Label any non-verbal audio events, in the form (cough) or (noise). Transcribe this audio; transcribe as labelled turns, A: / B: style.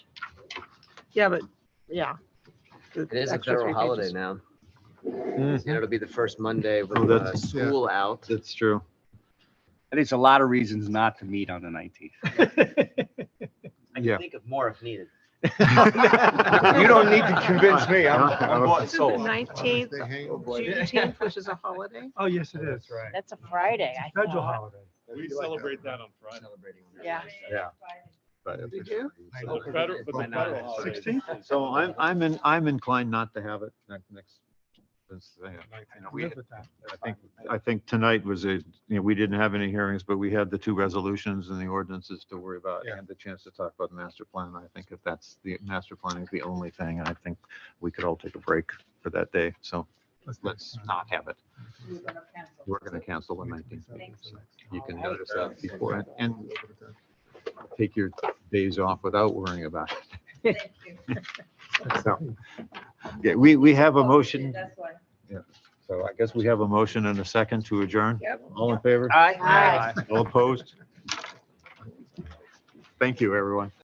A: Yeah, but, yeah. the
B: It is a
A: extra
B: federal
A: three pages.
B: holiday now.
C: Mm,
B: You know, it'll be the first Monday with
C: Oh,
B: uh,
C: that's-
D: yeah.
B: school out.
C: That's (laughs) true.
E: And it's a lot of reasons not to meet on the 19th.
B: I can
C: Yeah.
B: think of more if needed.
E: You don't need to convince
C: (laughs)
E: me. I'm,
C: I don't-
E: I'm bought and
A: Isn't the
E: sold.
A: nineteenth,
D: They hang-
A: Juneteenth, which is a holiday?
F: Oh, yes, it is.
C: right.
G: That's a Friday, I
F: Federal
G: thought.
F: holiday.
H: We celebrate that on Friday.
G: Yeah.
E: Yeah.
A: Did you?
H: But the federal, but the federal holiday.
F: 16th?
C: So I'm, I'm in, I'm inclined not to have it ne- next. this, uh, you know, we-
F: Live with that.
C: I think, I think tonight was a, you know, we didn't have any hearings, but we had the two resolutions and the ordinances to worry about
D: Yeah.
C: and the chance to talk about the master plan. I think if that's the master plan is the only thing, I think we could all take a break for that day. So let's
E: Mm-hmm.
C: not have it. We're going to cancel the 19th. meeting, so You can notice that before and- and take your days off without worrying about it. (laughs) So, Yeah, we, we have a motion. So I guess we have a motion and a second to adjourn.
A: Yep.
C: All in favor?
E: Aye.
G: Aye.
C: All opposed? Thank you, everyone.